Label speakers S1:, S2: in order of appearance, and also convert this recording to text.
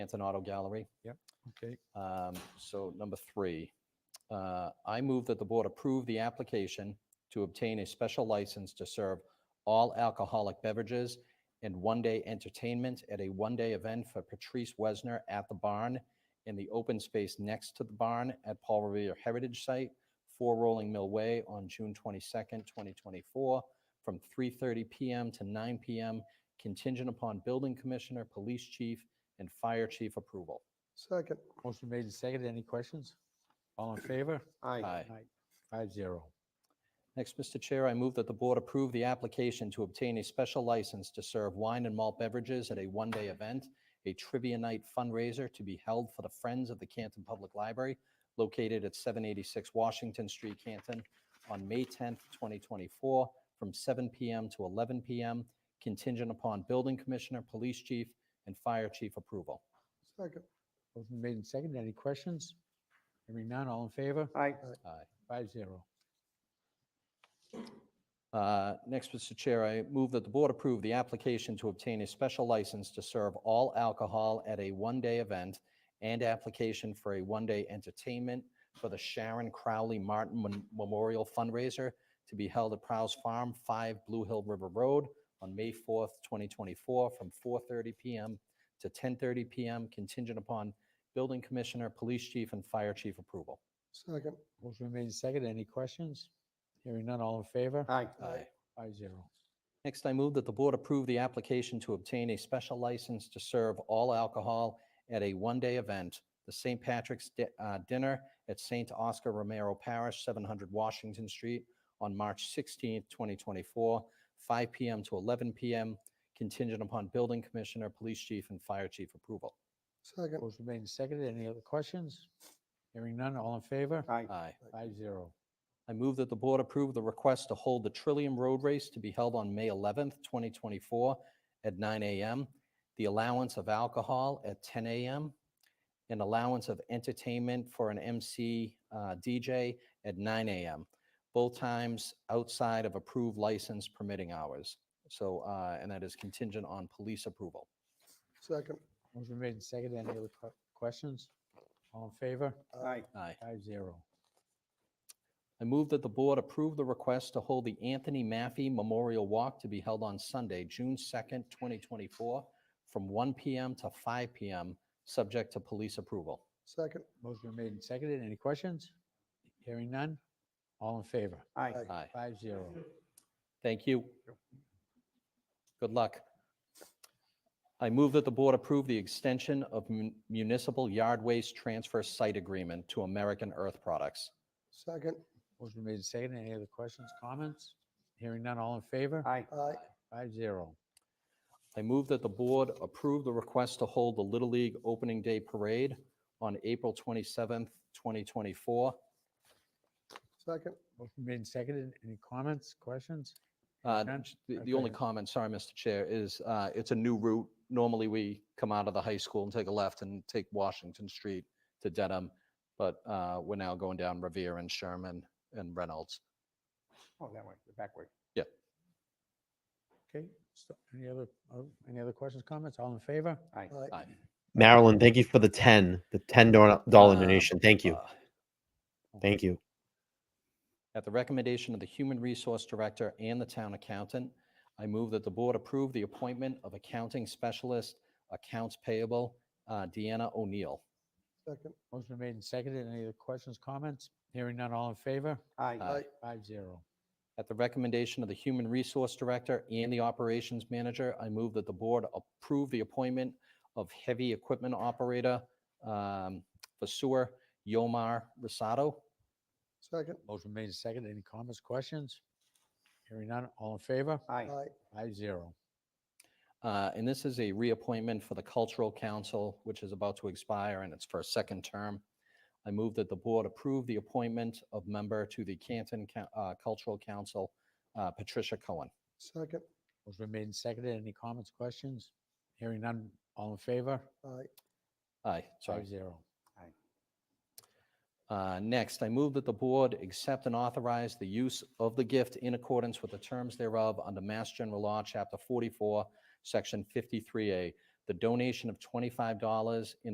S1: Canton Auto Gallery.
S2: Okay,
S1: Um, So number three, uh, I move that the board approve the application to obtain a special license to serve all alcoholic beverages and one-day entertainment at a one-day event for Patrice Wesner at the barn in the open space next to the barn at Paul Revere Heritage Site, 4 Rolling Mill Way on June 22nd, 2024, from 3:30 PM to 9 PM, contingent upon building commissioner, police chief, and fire chief approval.
S3: Second.
S2: motion made and seconded. Any questions? All in favor?
S3: Aye.
S1: Aye.
S2: Five zero.
S1: Next, Mr. Chair, I move that the board approve the application to obtain a special license to serve wine and malt beverages at a one-day event, a trivia night fundraiser to be held for the Friends of the Canton Public Library located at 786 Washington Street, Canton, on May 10th, 2024, from 7 PM to 11 PM, contingent upon building commissioner, police chief, and fire chief approval.
S3: Second.
S2: Motion made and seconded. Any questions? Hearing none. All in favor?
S3: Aye.
S1: Aye.
S2: Five zero.
S1: Uh, Next, Mr. Chair, I move that the board approve the application to obtain a special license to serve all alcohol at a one-day event and application for a one-day entertainment for the Sharon Crowley Martin Mem- Memorial Fundraiser to be held at Prowse Farm, 5 Blue Hill River Road, on May 4th, 2024, from 4:30 PM to 10:30 PM, contingent upon building commissioner, police chief, and fire chief approval.
S3: Second.
S2: Motion made and seconded. Any questions? Hearing none. All in favor?
S3: Aye.
S2: Five zero.
S1: Next, I move that the board approve the application to obtain a special license to serve all alcohol at a one-day event, the St. Patrick's Di- uh, Dinner at St. Oscar Romero Parish, 700 Washington Street, on March 16th, 2024, 5 PM to 11 PM, contingent upon building commissioner, police chief, and fire chief approval.
S3: Second.
S2: Motion made and seconded. Any other questions? Hearing none. All in favor?
S3: Aye.
S1: Aye.
S2: Five zero.
S1: I move that the board approve the request to hold the Trillium Road Race to be held on May 11th, 2024 at 9 a.m., the allowance of alcohol at 10 a.m., an allowance of entertainment for an MC uh, DJ at 9 a.m., both times outside of approved license permitting hours. So, uh, and that is contingent on police approval.
S3: Second.
S2: Motion made and seconded. Any other que- questions? All in favor?
S3: Aye.
S1: Aye.
S2: Five zero.
S1: I move that the board approve the request to hold the Anthony Maffey Memorial Walk to be held on Sunday, June 2nd, 2024, from 1 PM to 5 PM, subject to police approval.
S3: Second.
S2: Motion made and seconded. Any questions? Hearing none. All in favor?
S3: Aye.
S1: Aye.
S2: Five zero.
S1: Thank you. Good luck. I move that the board approve the extension of mun- municipal yard waste transfer site agreement to American Earth Products.
S3: Second.
S2: Motion made and seconded. Any other questions, comments? Hearing none. All in favor?
S4: Aye.
S3: Aye.
S2: Five zero.
S1: I move that the board approve the request to hold the Little League Opening Day Parade on April 27th, 2024.
S3: Second.
S2: Motion made and seconded. Any comments, questions?
S1: Uh,
S2: None?
S1: j- The the
S2: Okay.
S1: only comment, sorry, Mr. Chair, is uh, it's a new route. Normally, we come out of the high school and take a left and take Washington Street to Dedham, but uh, we're now going down Revere and Sherman and Reynolds.
S4: Oh, that way, the back way.
S2: Okay, so any other, oh, any other questions, comments? All in favor?
S4: Aye.
S3: Aye.
S1: Aye.
S5: Marilyn, thank you for the 10, the $10 dollar
S1: Uh,
S5: donation. Thank you.
S1: Uh,
S5: Thank you.
S1: At the recommendation of the Human Resource Director and the Town Accountant, I move that the Board approve the appointment of Accounting Specialist, Accounts Payable, uh, Deanna O'Neill.
S3: Second.
S2: Motion made and seconded. Any other questions, comments? Hearing none. All in favor?
S1: Aye.
S4: Aye.
S2: Five zero.
S1: At the recommendation of the Human Resource Director and the Operations Manager, I move that the Board approve the appointment of Heavy Equipment Operator um, for Sewer, Yomar Rosado.
S3: Second.
S2: Motion made and seconded. Any comments, questions? Hearing none. All in favor?
S4: Aye.
S3: Aye.
S2: Five zero.
S1: Uh, And this is a reappointment for the Cultural Council, which is about to expire in its first second term. I move that the board approve the appointment of member to the Canton Coun- uh, Cultural Council, uh, Patricia Cohen.
S3: Second.
S2: Motion made and seconded. Any comments, questions? Hearing none. All in favor?
S3: Aye.
S1: Aye, sorry.
S2: Five zero.
S1: Uh, Next, I move that the board accept and authorize the use of the gift in accordance with the terms thereof under Mass General Law, Chapter 44, Section 53A. The the donation of $25 in